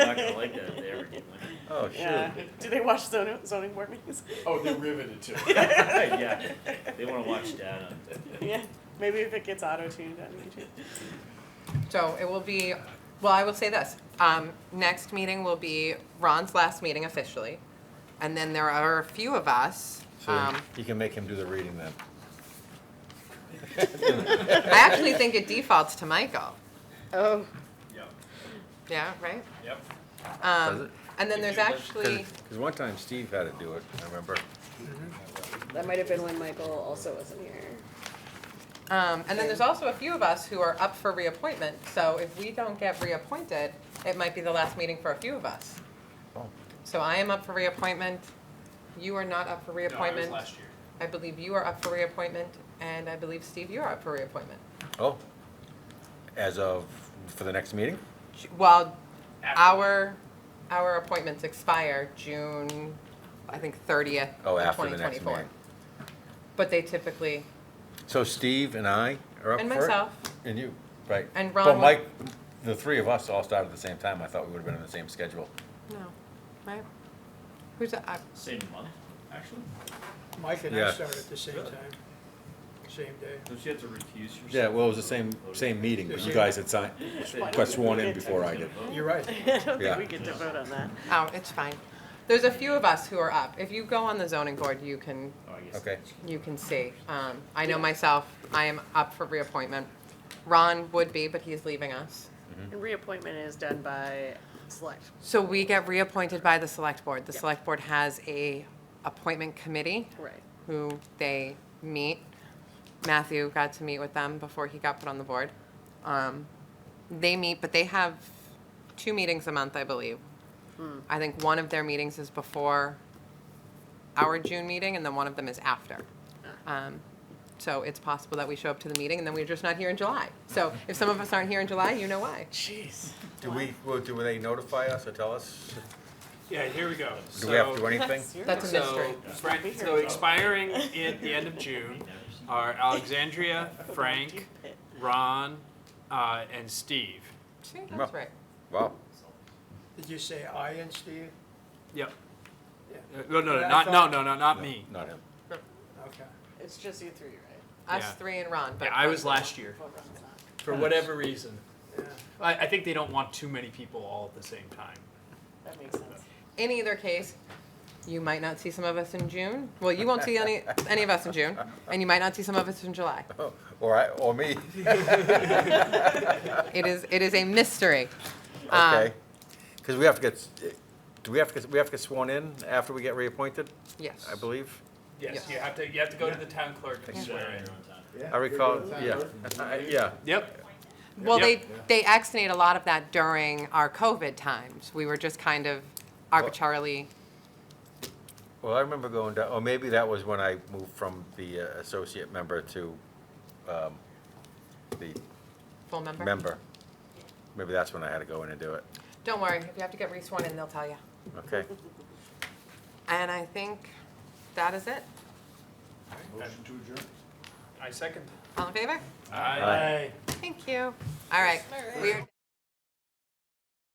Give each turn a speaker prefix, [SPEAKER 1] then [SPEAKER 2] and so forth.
[SPEAKER 1] Oh,
[SPEAKER 2] Yeah.
[SPEAKER 1] sure.
[SPEAKER 2] Do they watch zoning, zoning board meetings?
[SPEAKER 3] Oh, they're riveted to it.
[SPEAKER 1] Yeah, they wanna watch data.
[SPEAKER 2] Yeah, maybe if it gets auto-tuned on YouTube.
[SPEAKER 4] So it will be, well, I will say this, um, next meeting will be Ron's last meeting officially. And then there are a few of us,
[SPEAKER 1] So
[SPEAKER 4] um,
[SPEAKER 1] you can make him do the reading then.
[SPEAKER 4] I actually think it defaults to Michael,
[SPEAKER 2] Oh.
[SPEAKER 3] Yep,
[SPEAKER 4] yeah, right?
[SPEAKER 3] yep.
[SPEAKER 1] Does
[SPEAKER 4] Um,
[SPEAKER 1] it?
[SPEAKER 4] and then there's actually,
[SPEAKER 1] Because one time Steve had to do it, I remember.
[SPEAKER 5] That might have been when Michael also wasn't here.
[SPEAKER 4] um, and then there's also a few of us who are up for reappointment, so if we don't get reappointed, it might be the last meeting for a few of us.
[SPEAKER 1] Oh.
[SPEAKER 4] So I am up for reappointment, you are not up for
[SPEAKER 3] No, I was
[SPEAKER 4] reappointment.
[SPEAKER 3] last year.
[SPEAKER 4] I believe you are up for reappointment, and I believe Steve, you're up for reappointment.
[SPEAKER 1] Oh, as of, for the next meeting?
[SPEAKER 4] Well,
[SPEAKER 3] After-
[SPEAKER 4] our, our appointments expire June, I think thirtieth
[SPEAKER 1] Oh,
[SPEAKER 4] of
[SPEAKER 1] after
[SPEAKER 4] twenty
[SPEAKER 1] the next
[SPEAKER 4] twenty-four.
[SPEAKER 1] meeting.
[SPEAKER 4] But they typically,
[SPEAKER 1] So Steve and I are up for it?
[SPEAKER 4] and myself,
[SPEAKER 1] And you, right.
[SPEAKER 4] And
[SPEAKER 1] But
[SPEAKER 4] Ron wa-
[SPEAKER 1] Mike, the three of us all started at the same time. I thought we would've been on the same schedule.
[SPEAKER 4] no, right? Who's, I,
[SPEAKER 6] Same month, actually?
[SPEAKER 7] Mike and I
[SPEAKER 1] Yeah.
[SPEAKER 7] started at the same time, same day.
[SPEAKER 6] Don't you have to recuse Oh, yourself?
[SPEAKER 1] Yeah, well, it was the same, same meeting, but you guys had signed, got sworn in before I did.
[SPEAKER 6] Oh,
[SPEAKER 7] You're right.
[SPEAKER 2] I don't
[SPEAKER 1] Yeah.
[SPEAKER 2] think we get to vote on that.
[SPEAKER 4] oh, it's fine. There's a few of us who are up. If you go on the zoning board, you can,
[SPEAKER 6] Oh, I guess.
[SPEAKER 1] Okay,
[SPEAKER 4] you can see. Um, I know myself, I am up for reappointment. Ron would be, but he's leaving us.
[SPEAKER 1] Mm-hmm.
[SPEAKER 2] And reappointment is done by select.
[SPEAKER 4] So we get reappointed by the select board. The select board has a appointment committee
[SPEAKER 2] Right.
[SPEAKER 4] who they meet. Matthew got to meet with them before he got put on the board. Um, they meet, but they have two meetings a month, I believe. I think one of their meetings is before our June meeting, and then one of them is after. Um, so it's possible that we show up to the meeting, and then we're just not here in July. So if some of us aren't here in July, you know why.
[SPEAKER 2] Jeez.
[SPEAKER 1] do we, well, do they notify us or tell us?
[SPEAKER 3] Yeah, here we go.
[SPEAKER 1] Do we have to
[SPEAKER 3] So-
[SPEAKER 1] do anything?
[SPEAKER 4] That's a mystery.
[SPEAKER 3] So, right, so expiring at the end of June are Alexandria, Frank, Ron, uh, and Steve.
[SPEAKER 4] See, that's right.
[SPEAKER 1] Wow.
[SPEAKER 7] Did you say I and Steve?
[SPEAKER 3] Yep.
[SPEAKER 7] Yeah.
[SPEAKER 3] Uh, No, no,
[SPEAKER 7] Yeah,
[SPEAKER 3] no,
[SPEAKER 7] I
[SPEAKER 3] not, no,
[SPEAKER 7] thought-
[SPEAKER 3] no, no, not
[SPEAKER 1] No,
[SPEAKER 3] me.
[SPEAKER 1] Not him.
[SPEAKER 7] Okay.
[SPEAKER 2] It's just you three, right?
[SPEAKER 4] Us
[SPEAKER 3] Yeah.
[SPEAKER 4] three and Ron. But
[SPEAKER 3] Yeah, I was last year,
[SPEAKER 2] Well, Ron's not.
[SPEAKER 3] for whatever reason.
[SPEAKER 7] Yeah.
[SPEAKER 3] I, I think they don't want too many people all at the same time.
[SPEAKER 2] That makes sense.
[SPEAKER 4] In either case, you might not see some of us in June. Well, you won't see any any of us in June, and you might not see some of us in July.
[SPEAKER 1] Oh, Or I, or me.
[SPEAKER 4] It is it is a mystery. Um,
[SPEAKER 1] Okay. Because we have to get, eh, do we have to, get- we have to get sworn in after we get reappointed,
[SPEAKER 4] Yes.
[SPEAKER 1] I believe?
[SPEAKER 3] Yes,
[SPEAKER 4] Yes.
[SPEAKER 3] you have to, you have to go to the town clerk and
[SPEAKER 6] You said
[SPEAKER 3] swear
[SPEAKER 6] it
[SPEAKER 3] in.
[SPEAKER 6] on time.
[SPEAKER 1] I recall, yeah, I- yeah.
[SPEAKER 3] Yep,
[SPEAKER 4] Well,
[SPEAKER 3] Yep.
[SPEAKER 4] they they exonate a lot of that during our COVID times. We were just kind of arbitrarily.
[SPEAKER 1] Well, I remember going down, or maybe that was when I moved from the uh, associate member to um, the
[SPEAKER 4] Full member?
[SPEAKER 1] member. Maybe that's when I had to go in and do it.
[SPEAKER 4] Don't worry, if you have to get re-sworn in, they'll tell you.
[SPEAKER 1] Okay.
[SPEAKER 4] And I think that is it.
[SPEAKER 6] Motion to adjourn?
[SPEAKER 3] I second.
[SPEAKER 4] All in favor?
[SPEAKER 3] Aye.
[SPEAKER 1] Aye.
[SPEAKER 4] Thank you. All right. We are-